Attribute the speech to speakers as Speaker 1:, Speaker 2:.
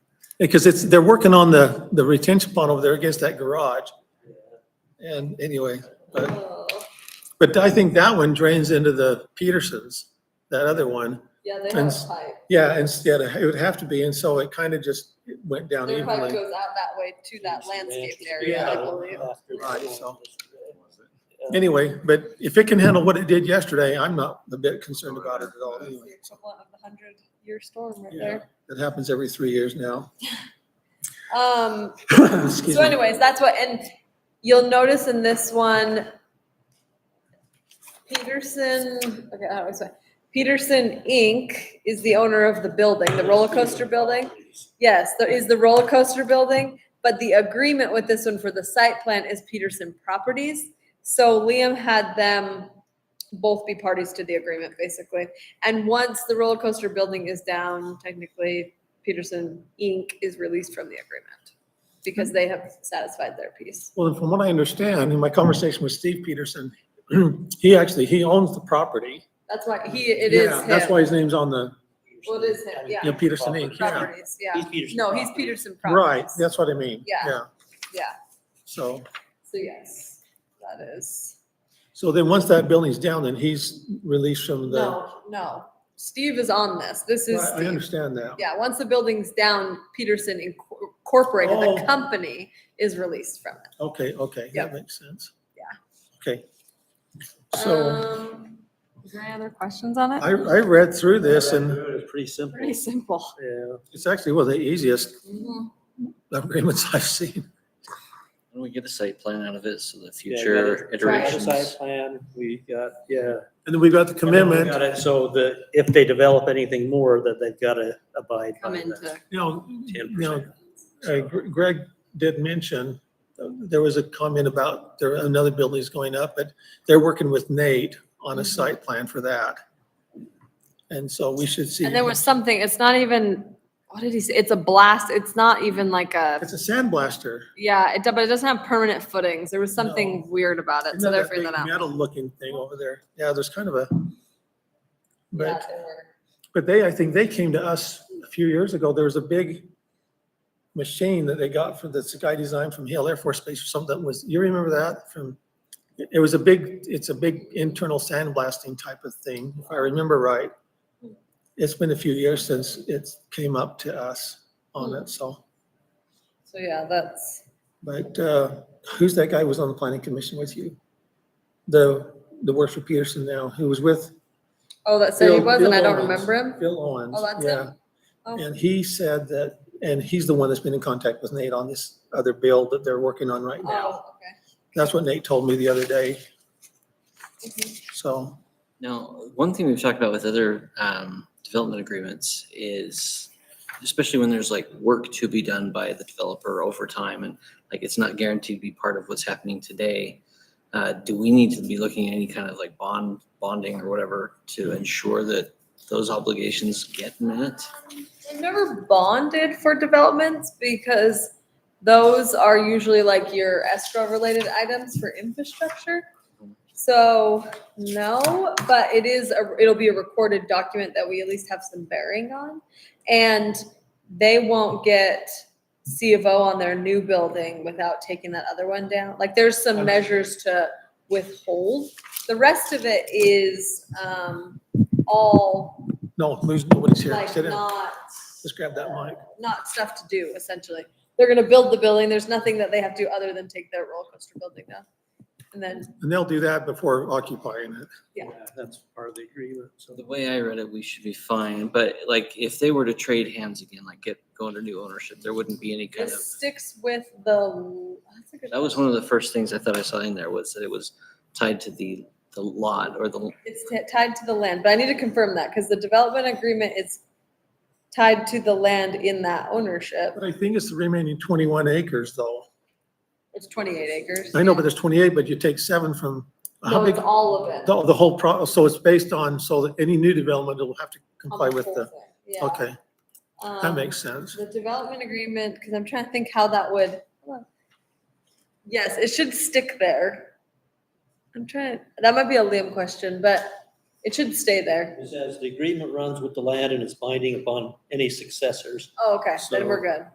Speaker 1: Because it's, they're working on the, the retention pond over there against that garage. And anyway, but,
Speaker 2: Oh,
Speaker 1: but I think that one drains into the Petersons, that other one.
Speaker 2: Yeah, they
Speaker 1: And
Speaker 2: have
Speaker 1: s-
Speaker 2: a pipe.
Speaker 1: Yeah, instead, it would have to be, and so it kind of just went down
Speaker 2: Their pipe
Speaker 1: evenly.
Speaker 2: goes out that way to that landscape area, I believe.
Speaker 1: Right, so. Anyway, but if it can handle what it did yesterday, I'm not a bit concerned about it at all
Speaker 2: It's
Speaker 1: anyway.
Speaker 2: the equivalent of the hundred-year storm right
Speaker 1: Yeah,
Speaker 2: there.
Speaker 1: It happens every three years now.
Speaker 2: Um,
Speaker 1: Excuse
Speaker 2: so
Speaker 1: me.
Speaker 2: anyways, that's what, and you'll notice in this one, Peterson, okay, how do I say? Peterson Inc. is the owner of the building, the roller coaster building. Yes, there is the roller coaster building, but the agreement with this one for the site plan is Peterson Properties. So Liam had them both be parties to the agreement, basically. And once the roller coaster building is down, technically Peterson Inc. is released from the agreement because they have satisfied their piece.
Speaker 1: Well, from what I understand, in my conversation with Steve Peterson, he actually, he owns the property.
Speaker 2: That's why he, it is
Speaker 1: Yeah,
Speaker 2: him.
Speaker 1: That's why his name's on the,
Speaker 2: Well, it is him, yeah.
Speaker 1: Yeah, Peterson Inc., yeah.
Speaker 2: Properties, yeah.
Speaker 3: He's Peterson.
Speaker 2: No, he's Peterson Properties.
Speaker 1: right, that's what I mean.
Speaker 2: Yeah. Yeah,
Speaker 1: So,
Speaker 2: so yes, that is.
Speaker 1: so then once that building's down, then he's released from the,
Speaker 2: No, no. Steve is on this. This is,
Speaker 1: I I
Speaker 2: Steve.
Speaker 1: understand that.
Speaker 2: yeah, once the building's down, Peterson Inc- Incorporated, the
Speaker 1: Oh.
Speaker 2: company, is released from it.
Speaker 1: Okay, okay,
Speaker 2: Yeah.
Speaker 1: that makes sense.
Speaker 2: Yeah.
Speaker 1: Okay. So
Speaker 2: Um, Is there any other questions on
Speaker 1: I, I read through this and
Speaker 3: It's pretty simple.
Speaker 2: Pretty simple.
Speaker 3: Yeah.
Speaker 1: it's actually one of the easiest
Speaker 2: Mhm.
Speaker 1: agreements I've seen.
Speaker 4: And we get a site plan out of it, so the
Speaker 3: Yeah, you
Speaker 4: future
Speaker 3: got it.
Speaker 4: iterations.
Speaker 3: Site plan, we got, yeah.
Speaker 1: And then we've got the
Speaker 3: Everyone
Speaker 1: commitment,
Speaker 3: got it, So that if they develop anything more, that they've got to abide by
Speaker 2: Come
Speaker 3: that
Speaker 2: into,
Speaker 1: you know, you
Speaker 3: ten
Speaker 1: know,
Speaker 3: percent.
Speaker 1: Uh, Gre- Greg did mention, uh, there was a comment about there, another building's going up, but they're working with Nate on
Speaker 2: Mm-hmm.
Speaker 1: a site plan for that. And so we should see.
Speaker 2: and there was something, it's not even, what did he say? It's a blast. It's not even like a,
Speaker 1: It's a sandblaster.
Speaker 2: yeah, it, do- but it doesn't have permanent footings. There was
Speaker 1: No.
Speaker 2: something weird about it, so they're figuring that out.
Speaker 1: Metal looking thing over there. Yeah, there's kind of a.
Speaker 2: Yeah,
Speaker 1: But,
Speaker 2: there were.
Speaker 1: but they, I think they came to us a few years ago. There was a big machine that they got for this guy designed from Hale Air Force Base or something that was, you remember that from? It it was a big, it's a big internal sandblasting type of thing, if I remember right. It's been a few years since it came up to us on it, so.
Speaker 2: So yeah, that's,
Speaker 1: But uh, who's that guy who was on the planning commission with you? The, the works for Peterson now, who was with
Speaker 2: oh, that said he
Speaker 1: Bill-
Speaker 2: was and
Speaker 1: Bill
Speaker 2: I don't
Speaker 1: Owens.
Speaker 2: remember him.
Speaker 1: Bill Owens.
Speaker 2: Oh, that's
Speaker 1: yeah.
Speaker 2: him. Oh.
Speaker 1: And he said that, and he's the one that's been in contact with Nate on this other bill that they're working on right now.
Speaker 2: Oh, okay.
Speaker 1: That's what Nate told me the other day, so.
Speaker 4: Now, one thing we've talked about with other um, development agreements is, especially when there's like work to be done by the developer over time and like it's not guaranteed to be part of what's happening today. Uh, do we need to be looking at any kind of like bond, bonding or whatever to ensure that those obligations get met?
Speaker 2: I've never bonded for developments because those are usually like your escrow related items for infrastructure. So no, but it is, a it'll be a recorded document that we at least have some bearing on. And they won't get C of O on their new building without taking that other one down. Like there's some measures to withhold. The rest of it is, um, all
Speaker 1: No, lose, nobody's here.
Speaker 2: like
Speaker 1: Sit down.
Speaker 2: not
Speaker 1: Just grab that mic.
Speaker 2: not stuff to do essentially. They're gonna build the building. There's nothing that they have to do other than take their roller coaster building down. And then,
Speaker 1: And they'll do that before occupying it.
Speaker 2: Yeah.
Speaker 3: That's part of the agreement,
Speaker 4: So
Speaker 3: so.
Speaker 4: the way I read it, we should be fine, but like if they were to trade hands again, like get, go under new ownership, there wouldn't be any kind of.
Speaker 2: this sticks with the. that's a good
Speaker 4: That was one of the first things I thought I saw in there was that it was tied to the, the lot or the,
Speaker 2: It's t- tied to the land, but I need to confirm that because the development agreement is tied to the land in that ownership.
Speaker 1: But I think it's the remaining twenty-one acres though.
Speaker 2: It's twenty-eight acres.
Speaker 1: I know, but there's twenty-eight, but you take seven from, how
Speaker 2: No,
Speaker 1: big,
Speaker 2: it's all of it.
Speaker 1: the, the whole pro, so it's based on, so that any new development will have to
Speaker 2: on
Speaker 1: comply with
Speaker 2: whole
Speaker 1: the,
Speaker 2: thing. Yeah.
Speaker 1: okay, that
Speaker 2: Um,
Speaker 1: makes sense.
Speaker 2: The development agreement, because I'm trying to think how that would. Yes, it should stick there. I'm trying, that might be a Liam question, but it should stay there.
Speaker 3: It says the agreement runs with the land and is binding upon any successors.
Speaker 2: Oh, okay, then we're
Speaker 3: So-
Speaker 2: good.